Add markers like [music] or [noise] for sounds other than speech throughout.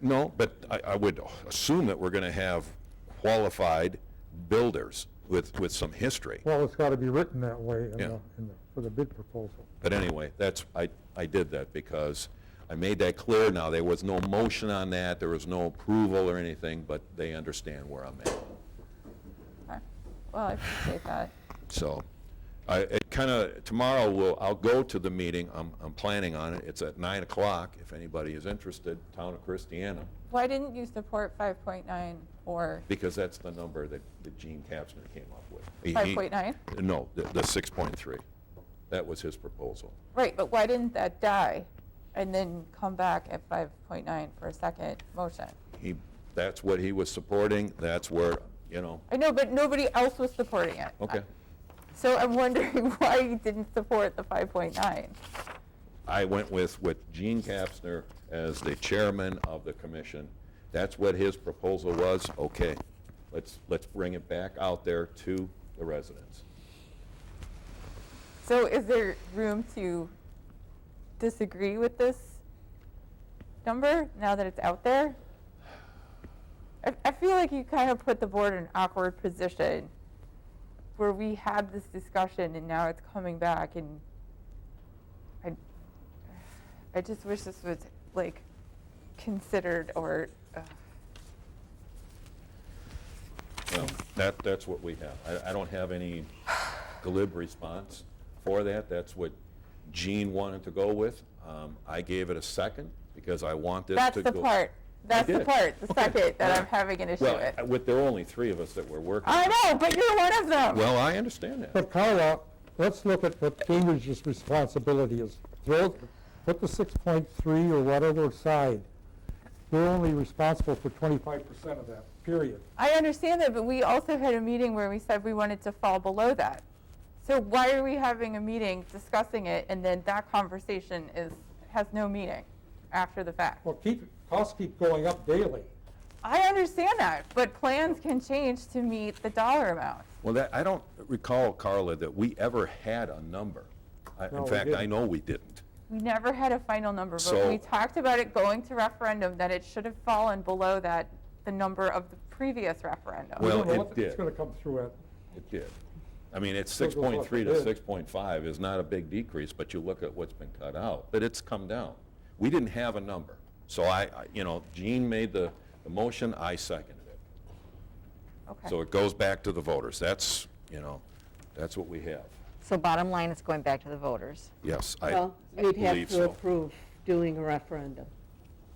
No, but I, I would assume that we're gonna have qualified builders with, with some history. Well, it's got to be written that way in Yeah. the, in the, for the bid proposal. But anyway, that's, I, I did that because I made that clear now. There was no motion on that, there was no approval or anything, but they understand where I'm at. Okay. Well, I appreciate that. So, I, it kinda, tomorrow will, I'll go to the meeting, I'm, I'm planning on it. It's at nine o'clock, if anybody is interested, Town of Christiana, Why didn't you support 5.9 or because that's the number that, that Gene Kapsner came up with. He- he- 5.9? No, the, the six point three. That was his proposal. Right, but why didn't that die and then come back at 5.9 for a second motion? He, that's what he was supporting, that's where, you know, I know, but nobody else was supporting it. okay. So I'm wondering [laughs] why you didn't support the 5.9. I went with, with Gene Kapsner as the chairman of the commission. That's what his proposal was, okay, let's, let's bring it back out there to the residents. So is there room to disagree with this number now that it's out there? I, I feel like you kind of put the board in an awkward position where we had this discussion and now it's coming back and I, I just wish this was like considered or, uh, Well, that, that's what we have. I, I don't have any glib response for that. That's what Gene wanted to go with. Um, I gave it a second because I want this that's to the go. part. That's the did. part, the Okay. second that I'm Alright. having an issue Well, with. I- with, there are only three of us that were working. I know, but you're one of them. Well, I understand that. But Carla, let's look at what Cambridge's responsibility is. Throw, put the six point three or whatever aside. We're only responsible for twenty-five percent of that, period. I understand that, but we also had a meeting where we said we wanted to fall below that. So why are we having a meeting discussing it and then that conversation is, has no meaning after the fact? Well, keep, costs keep going up daily. I understand that, but plans can change to meet the dollar amount. Well, that, I don't recall, Carla, that we ever had a number. I- No, In we fact, I didn't. know we didn't. We never had a final number, but So- we talked about it going to referendum, that it should have fallen below that, the number of the previous referendum. We Well, don't know it what did. It's gonna come through at. It did. I mean, it's Still six goes up, point three it to is. six point five is not a big decrease, but you look at what's been cut out, but it's come down. We didn't have a number. So I, I- you know, Gene made the, the motion, I seconded it. So Okay. it goes back to the voters. That's, you know, that's what we have. So bottom line, it's going back to the voters. Yes, I I Well, we'd have believe to so. approve doing a referendum.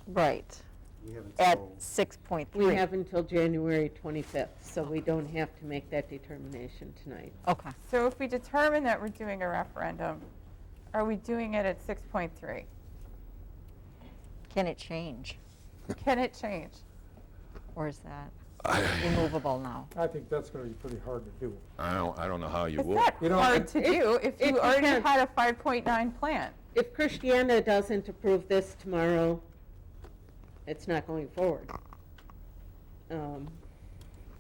Right. We haven't At sold. 6.3. We have until January 25th, so we don't have to make that determination tonight. Okay. So if we determine that we're doing a referendum, are we doing it at 6.3? Can it change? Can it change? Or is that immovable now? I think that's gonna be pretty hard to do. [laughs] I don't, I don't know how you It's would. not You know, hard it- to do if it you already depends. had a 5.9 plan. If Christiana doesn't approve this tomorrow, it's not going forward. Um,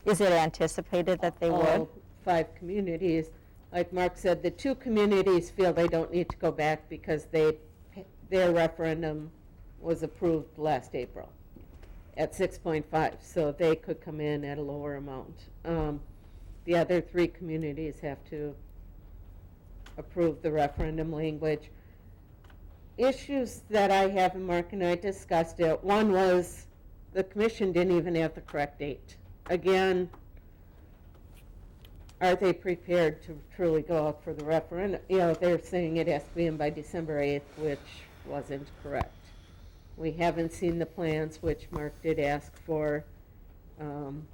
Is it anticipated that they would? All five communities, like Mark said, the two communities feel they don't need to go back because they, their referendum was approved last April at 6.5, so they could come in at a lower amount. Um, The other three communities have to approve the referendum language. Issues that I have, and Mark and I discussed it, one was the commission didn't even have the correct date. Again, are they prepared to truly go out for the referendum? You know, they're saying it has to be in by December 8th, which wasn't correct. We haven't seen the plans, which Mark did ask for, um,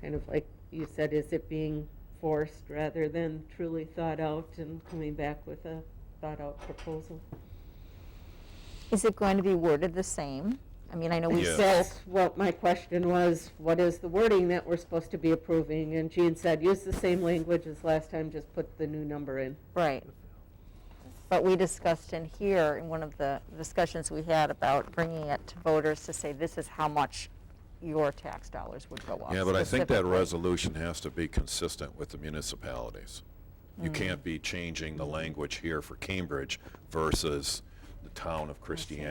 kind of like you said, is it being forced rather than truly thought out and coming back with a thought-out proposal? Is it going to be worded the same? I mean, I know we Yeah. said, That's what my question was, what is the wording that we're supposed to be approving? And Jean said, use the same language as last time, just put the new number in. right. But we discussed in here, in one of the discussions we had about bringing it to voters to say, this is how much your tax dollars would go up. Yeah, but I think that specifically. resolution has to be consistent with the municipalities. You Hmm. can't be changing the language here for Cambridge versus the town of Christiana.